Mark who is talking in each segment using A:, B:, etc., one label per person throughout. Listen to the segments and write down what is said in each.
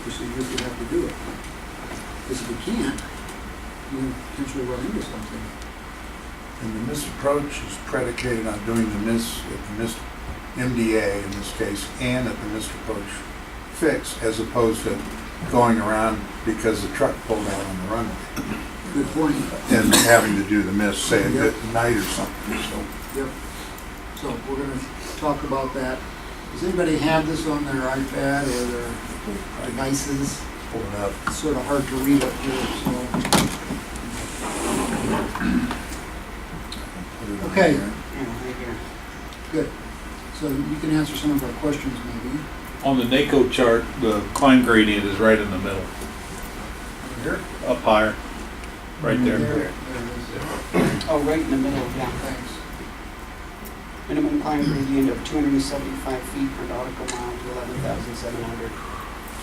A: procedure if you have to do it. Because if you can't, you potentially run into something.
B: And the misapproach is predicated on doing the mis, the mis, MDA in this case, and at the misapproach fix, as opposed to going around because the truck pulled out on the runway
A: Good point.
B: and having to do the miss, say,
A: Yeah.
B: at night or something, so.
A: So we're gonna talk about that. Does anybody have this on their iPad or their devices?
B: Pull it up.
A: It's sort of hard to read up here,
B: Put it on
A: Okay.
B: there.
A: so, good. So you can answer some of our questions maybe.
C: On the NACO chart, the climb gradient is right in the middle,
A: Here?
C: up higher, right there.
A: There it is.
D: Oh, right in the middle, yeah.
A: Thanks.
D: Minimum climb gradient of 275 feet per nautical mile to 11,700.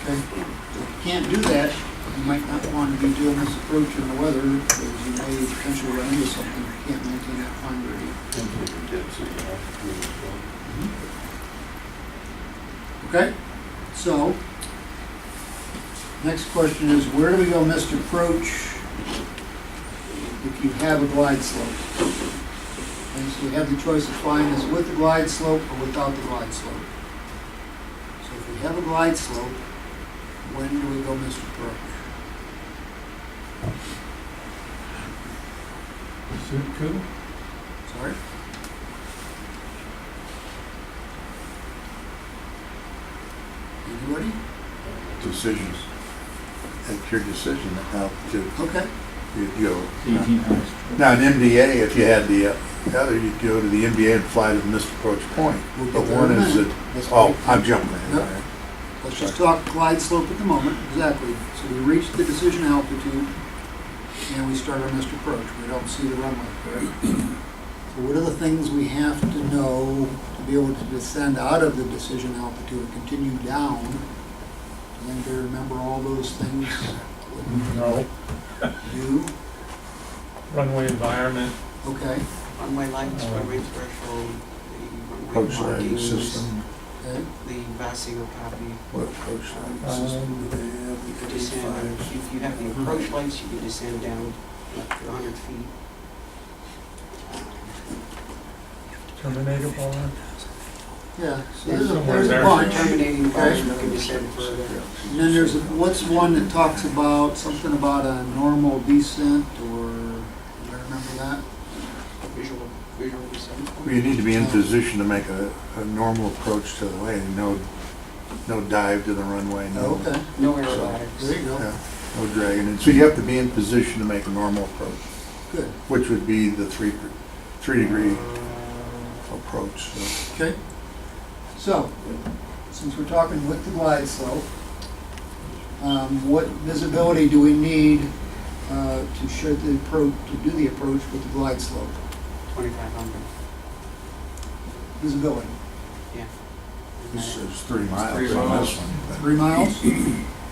A: Okay, if you can't do that, you might not want to be doing this approach in the weather, because you may potentially run into something, you can't maintain that climb gradient. Mm-hmm. Okay, so, next question is, where do we go missed approach if you have a glide slope? And so we have the choice of flying this with the glide slope or without the glide slope. So if we have a glide slope, when do we go missed approach? Sorry? Anybody?
B: Decisions. It's your decision how to,
A: Okay.
B: you go.
C: Eighteen hundred.
B: Now, an MDA, if you had the uh, other, you'd go to the MDA and fly to the missed approach point.
A: we'll
B: But
A: get there
B: one
A: in a
B: is
A: minute.
B: that,
A: Let's
B: oh,
A: go-
B: I'm jumping
A: Yep.
B: ahead.
A: Let's just talk glide slope at the moment, exactly. So we reach the decision altitude, and we start our missed approach. We don't see the runway, correct? So what are the things we have to know to be able to descend out of the decision altitude and continue down? Does anybody remember all those things?
E: No.
A: Do,
E: Runway environment,
A: okay,
D: Runway lights, runway threshold, the
B: Oh. Approach
D: runway
B: lighting
D: markings,
B: system,
A: okay.
D: the Vasio copy.
B: what approach lighting
E: um,
B: system do they
D: You
B: have?
D: could
B: The
D: descend,
B: A5s?
D: if you have the approach lights, you could descend down up to 100 feet.
E: terminator bar,
A: Yeah, so there's a,
E: Somewhere
A: there's a
E: there.
A: bunch.
D: Terminating bars, you
B: Okay.
D: can descend further.
A: And then there's, what's one that talks about, something about a normal descent, or, do I remember that?
D: Visual, visual descent.
B: Well, You need to be in position to make a, a normal approach to the lane, no, no dive to the runway, no,
A: Oh, Okay,
D: No aerobatics.
A: there you go,
B: yeah, no dragging. And so you have to be in position to make a normal approach,
A: good,
B: which would be the three, three
D: Uh,
B: degree approach. so.
A: okay. So, since we're talking with the glide slope, um, what visibility do we need, uh, to show the approach, to do the approach with the glide slope?
D: 2,500.
A: Visibility,
B: This is three miles
C: Three
B: on
C: miles.
B: this one.
A: three miles?
B: but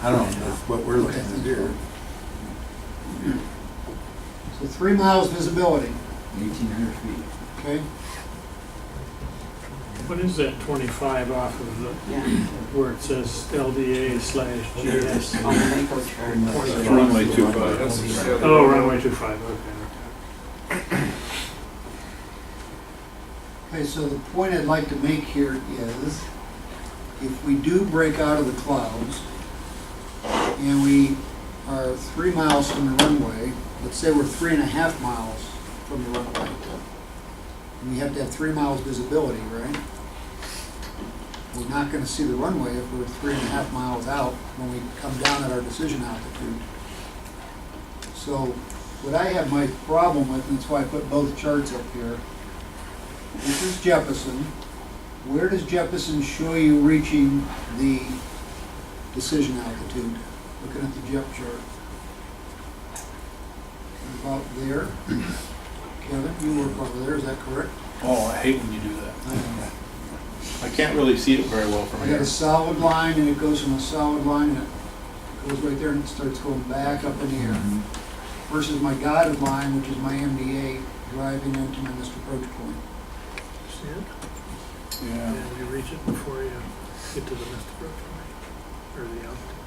B: I don't know what we're looking at here.
A: So three miles visibility,
F: Eighteen hundred feet.
A: okay?
G: What is that twenty-five off of the,
D: Yeah, Oh,
G: where it says LDA slash GS?
D: on the NACO chart.
C: Runway two five.
G: Oh, runway two-five, okay.
A: Okay, so the point I'd like to make here is, if we do break out of the clouds, and we are three miles from the runway, let's say we're three and a half miles from the runway, and we have to have three miles visibility, right? We're not gonna see the runway if we're three and a half miles out when we come down at our decision altitude. So, what I have my problem with, and that's why I put both charts up here, this is Jefferson. Where does Jefferson show you reaching the decision altitude? Looking at the Jep chart. About there. Kevin, you work over there, is that correct?
C: Oh, I hate when you do that.
A: I don't know.
C: I can't really see it very well from
A: I got
C: here.
A: a solid line and it goes from a solid line and it goes right there and it starts going back up in the air. Versus my dotted line, which is my MDA driving into my missed approach point.
G: See it?
B: Yeah.
G: And you reach it before you get to the missed approach, or the altitude.